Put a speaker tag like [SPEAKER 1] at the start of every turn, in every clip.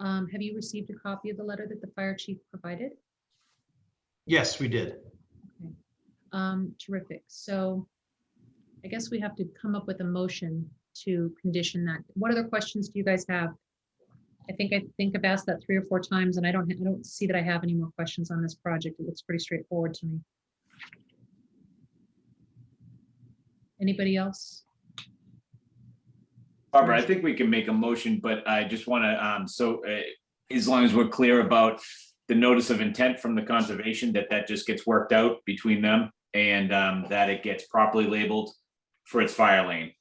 [SPEAKER 1] Um, have you received a copy of the letter that the fire chief provided?
[SPEAKER 2] Yes, we did.
[SPEAKER 1] Um, terrific. So I guess we have to come up with a motion to condition that. What other questions do you guys have? I think, I think I've asked that three or four times and I don't, I don't see that I have any more questions on this project. It looks pretty straightforward to me. Anybody else?
[SPEAKER 3] Barbara, I think we can make a motion, but I just want to, um, so, uh, as long as we're clear about the notice of intent from the conservation, that that just gets worked out between them and, um, that it gets properly labeled for its fire lane.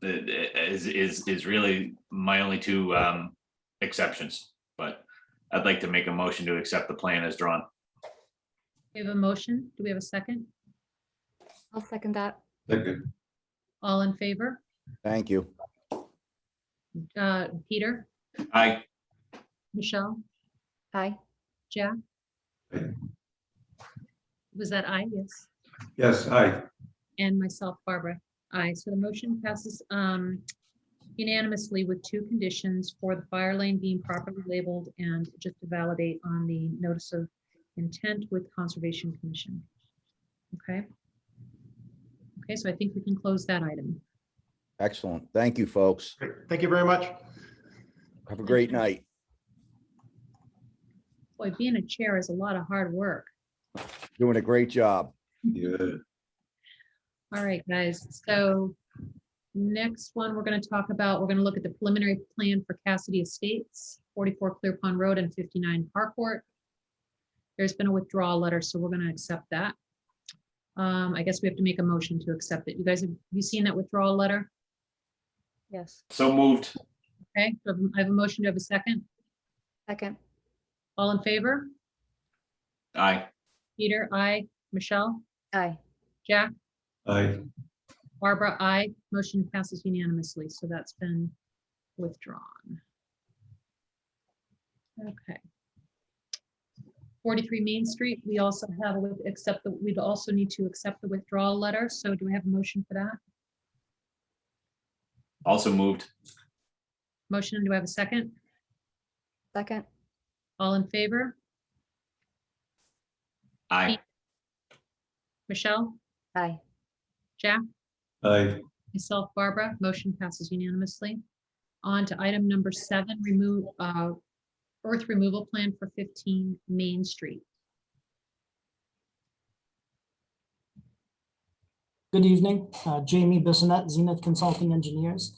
[SPEAKER 3] The- the- is, is, is really my only two, um, exceptions, but I'd like to make a motion to accept the plan as drawn.
[SPEAKER 1] We have a motion. Do we have a second?
[SPEAKER 4] I'll second that.
[SPEAKER 5] Second.
[SPEAKER 1] All in favor?
[SPEAKER 6] Thank you.
[SPEAKER 1] Uh, Peter,
[SPEAKER 3] Aye,
[SPEAKER 1] Michelle,
[SPEAKER 4] Aye.
[SPEAKER 1] Jack?
[SPEAKER 5] Aye.
[SPEAKER 1] Was that I? Yes.
[SPEAKER 5] Yes, aye.
[SPEAKER 1] And myself, Barbara. Aye. So the motion passes um, unanimously with two conditions for the fire lane being properly labeled and just to validate on the notice of intent with Conservation Commission. Okay? Okay, so I think we can close that item.
[SPEAKER 6] Excellent. Thank you, folks.
[SPEAKER 2] Great. Thank you very much.
[SPEAKER 6] Have a great night.
[SPEAKER 1] Boy, being a chair is a lot of hard work.
[SPEAKER 6] Doing a great job.
[SPEAKER 5] Yeah.
[SPEAKER 1] All right, guys, so next one we're gonna talk about, we're gonna look at the preliminary plan for Cassidy Estates, forty-four Clear Pond Road and fifty-nine Park Court. There's been a withdrawal letter, so we're gonna accept that. Um, I guess we have to make a motion to accept it. You guys, have you seen that withdrawal letter?
[SPEAKER 4] Yes.
[SPEAKER 3] so moved.
[SPEAKER 1] Okay, so I have a motion, to have a second?
[SPEAKER 4] Second.
[SPEAKER 1] All in favor?
[SPEAKER 3] Aye,
[SPEAKER 1] Peter, I, Michelle,
[SPEAKER 4] Aye.
[SPEAKER 1] Jack?
[SPEAKER 5] Aye.
[SPEAKER 1] Barbara, I Motion passes unanimously, so that's been withdrawn. Okay. 43 Main Street, we also have, a with- accept that, we'd also need to accept the withdrawal letter, so do we have a motion for that?
[SPEAKER 3] also moved.
[SPEAKER 1] Motion, do I have a second?
[SPEAKER 4] Second.
[SPEAKER 1] All in favor?
[SPEAKER 3] Aye,
[SPEAKER 1] Michelle,
[SPEAKER 4] Aye.
[SPEAKER 1] Jack?
[SPEAKER 5] Aye.
[SPEAKER 1] Myself, Barbara, motion passes unanimously. On to item number seven, remove, uh, earth removal plan for fifteen Main Street.
[SPEAKER 7] Good evening, Uh, Jamie Bissonette, Zenith Consulting Engineers.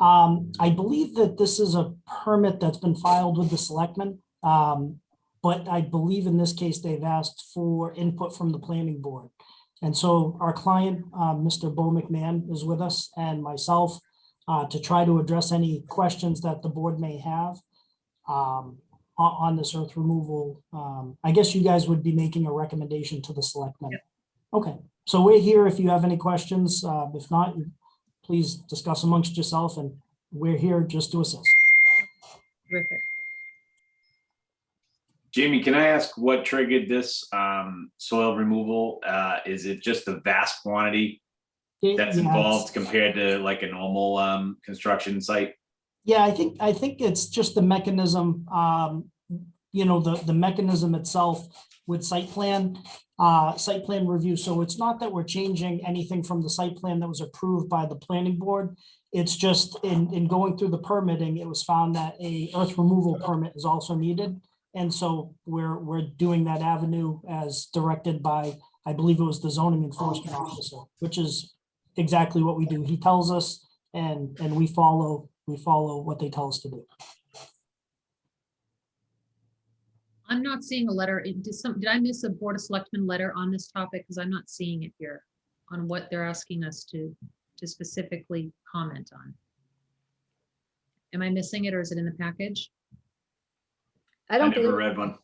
[SPEAKER 7] Um, I believe that this is a permit that's been filed with the selectmen. um, But I believe in this case, they've asked for input from the planning board. And so our client, uh, Mr. Bo McMahon, is with us and myself uh, to try to address any questions that the board may have um, on on this earth removal. Um, I guess you guys would be making a recommendation to the selectmen. Okay. So we're here if you have any questions. Uh, If not, you- please discuss amongst yourself, and we're here just to assist.
[SPEAKER 1] Terrific.
[SPEAKER 3] Jamie, can I ask what triggered this um, soil removal? Uh, Is it just the vast quantity that's
[SPEAKER 7] Yeah, it's-
[SPEAKER 3] involved compared to like a normal um, construction site?
[SPEAKER 7] Yeah, I think, I think it's just the mechanism, um, you know, the, the mechanism itself with site plan, uh, site plan review. So it's not that we're changing anything from the site plan that was approved by the planning board. It's just in, in going through the permitting, it was found that a earth removal permit is also needed. And so we're, we're doing that avenue as directed by, I believe it was the zoning enforcement officer, which is exactly what we do. He tells us and, and we follow, we follow what they tell us to do.
[SPEAKER 1] I'm not seeing a letter. It- Did some, did I miss a Board of Selectmen letter on this topic? Because I'm not seeing it here on what they're asking us to, to specifically comment on. Am I missing it or is it in the package?
[SPEAKER 4] I
[SPEAKER 3] I
[SPEAKER 4] don't
[SPEAKER 3] never
[SPEAKER 4] believe,
[SPEAKER 3] read one.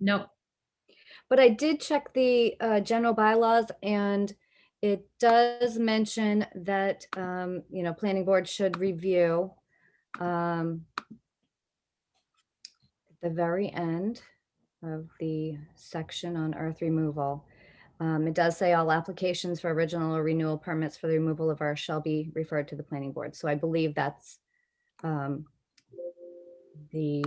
[SPEAKER 1] No,
[SPEAKER 4] but I did check the uh, general bylaws and it does mention that, um, you know, planning board should review um, at the very end of the section on earth removal. Um, It does say all applications for original or renewal permits for the removal of earth shall be referred to the planning board. So I believe that's um, the